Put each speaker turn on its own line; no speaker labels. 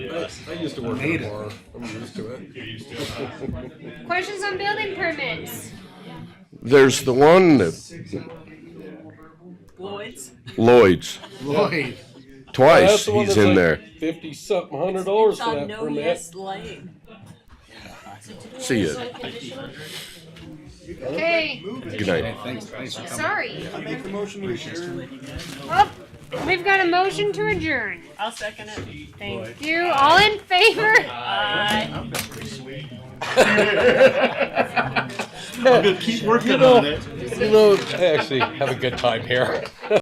I, I used to work
Made
at a
it.
bar. I'm used to it.
You're used to it.
Questions on building permits?
There's the one that
Lloyd's.
Lloyd's
Lloyd.
twice he's in there.
Fifty something hundred dollars
It's
for
on
that
No
permit.
Yes Lane.
See it.
Okay,
Good night.
Thanks, thanks for coming.
sorry. Oh, we've got a motion to adjourn.
I'll second it.
Thank you. All in favor?
Aye.
I'm gonna keep working on it.
You know, I actually have a good time here.